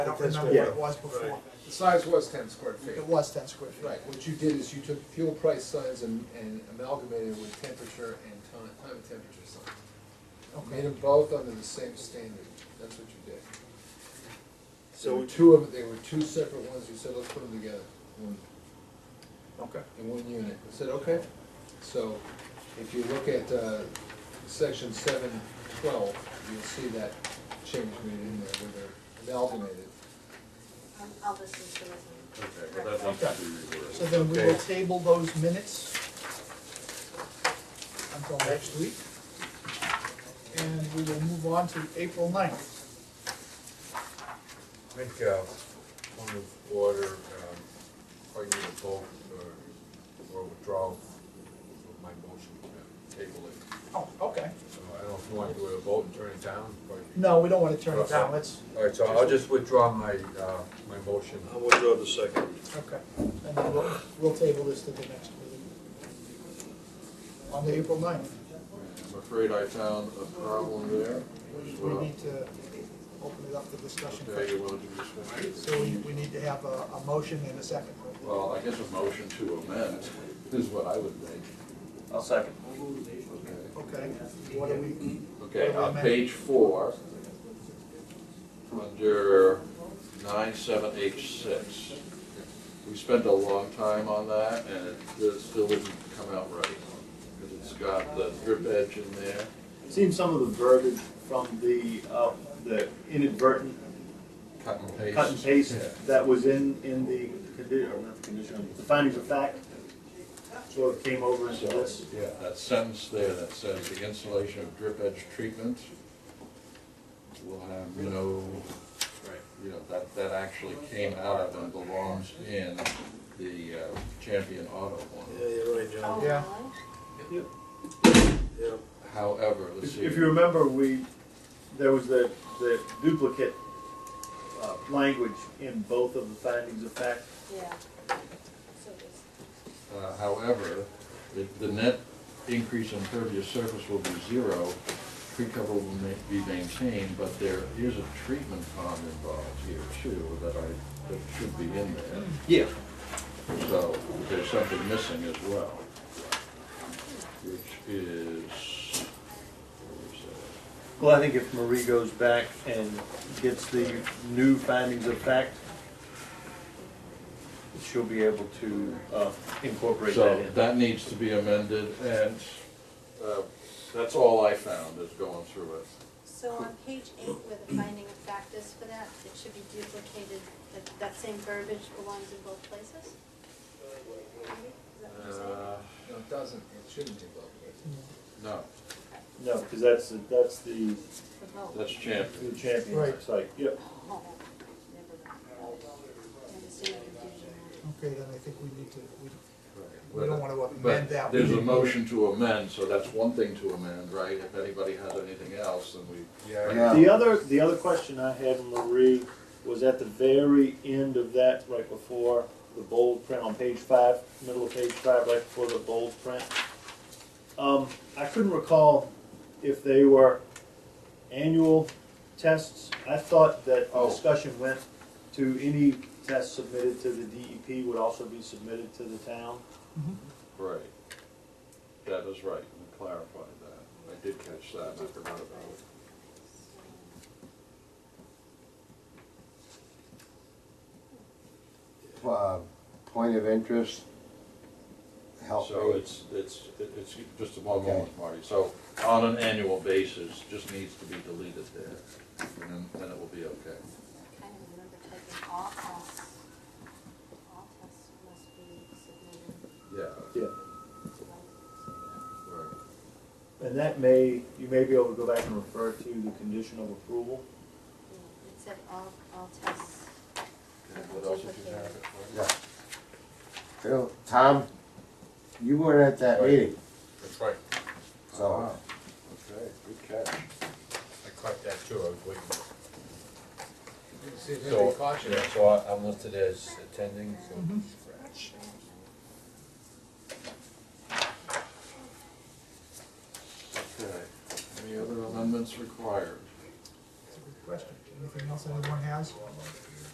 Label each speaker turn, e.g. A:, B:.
A: I don't
B: That's
A: remember
B: right.
A: what it was before.
C: The size was ten square feet.
A: It was ten square feet.
C: Right, what you did is you took fuel price signs and, and amalgamated with temperature and time, time and temperature signs. Made
A: Okay,
C: them both under the same standard, that's what you did. There
B: So,
C: were two of, there were two separate ones, you said, let's put them together, one,
B: okay,
C: in one unit, I said, okay. So, if you look at, uh, section seven twelve, you'll see that change made in there where they're amalgamated.
D: Um, I'll listen to it.
E: Okay, well, that needs to be
A: so
E: reversed.
A: then we will
E: Okay,
A: table those minutes until next week. And we will move on to April ninth.
F: I think, uh, point of order, um, I need a vote uh, or, or withdrawal of my motion to table it.
A: Oh, okay.
F: So I don't know if you want to do a vote and turn it down, but.
A: No, we don't wanna turn it down, let's,
F: All right, so I'll just withdraw my, uh, my motion.
E: I'll withdraw the second.
A: okay. And then we'll, we'll table this to the next meeting. On the April ninth,
G: I'm afraid I found a problem there.
A: we,
G: as
A: we
G: well.
A: need to open it up to discussion.
G: Okay, you want to do this one?
A: So we, we need to have a, a motion and a second.
G: Well, I guess a motion to amend is what I would make.
B: I'll second.
G: Okay.
A: Okay, what do we,
G: Okay, on page four, under nine seven eight six, we spent a long time on that, and it it still didn't come out right. Because it's got the drip edge in there.
H: Seen some of the verbiage from the, uh, the inadvertent
G: Cut and
H: cut and paste that was in, in the condi, or not the condition, the findings of fact, sort of came over into this.
G: Yeah, that sentence there that says the installation of drip edge treatment will have no, you know, that, that actually came out of and belongs in the uh, Champion Auto
E: Yeah,
G: one.
E: you're right, John.
D: Oh,
A: Yeah.
D: really?
E: Yeah.
G: However, let's
H: If
G: see.
H: if you remember, we, there was the, the duplicate, uh, language in both of the findings of fact.
D: Yeah. So this-
G: Uh, However, the, the net increase in pervious surface will be zero, tree cover will ma- be maintained, but there is a treatment pond involved here too, that I, that should be in there.
H: Yeah.
G: So there's something missing as well, which is, where is that?
H: Well, I think if Marie goes back and gets the new findings of fact, she'll be able to, uh, incorporate that
G: So
H: in.
G: that needs to be amended, and uh, that's all I found is going through it.
D: So on page eight, where the finding of fact is for that, it should be duplicated, that, that same verbiage belongs in both places? Maybe? Is that what you're saying?
G: Uh,
C: No, it doesn't, it shouldn't be amalgamated.
G: No,
H: No, because that's, the- that's the,
D: The vote.
G: that's Champion.
H: the champion
A: Right.
H: site, yep.
D: Oh, never mind. I understand the confusion.
A: okay, then I think we need to, we, we
G: Right.
A: don't wanna amend
G: But
A: that.
G: there's a motion to amend, so that's one thing to amend, right? If anybody has anything else, then we,
F: Yeah,
G: Yeah.
H: The other, the other question I had, Marie, was at the very end of that, right before the bold print on page five, middle of page five, right before the bold print. Um, I couldn't recall if they were annual tests. I thought that the
G: Oh.
H: discussion went to any test submitted to the DEP would also be submitted to the town.
G: right. That is right, we clarified that. I did catch that, and I forgot about it.
B: uh, point of interest, help
G: So
B: me.
G: it's, it's, it's just a one moment, Marty. So on an annual basis, just needs to be deleted there, and then, then it will be okay.
D: I kind of remember typing all tests. All tests must be submitted.
G: Yeah,
H: Yeah.
D: to like-
G: right.
H: And that may, you may be able to go back and refer to the condition of approval.
D: It said all, all tests.
G: What else did you have?
B: Yeah. Phil, Tom, you weren't at that meeting,
F: that's right,
B: so.
G: Okay, good catch.
F: I caught that too, I was waiting.
C: You can see if
F: So-
C: anybody caught you.
F: Yeah, so I- I'm listed as attending, so.
G: Okay. Any other amendments required?
A: That's a good question. Anything else anyone has?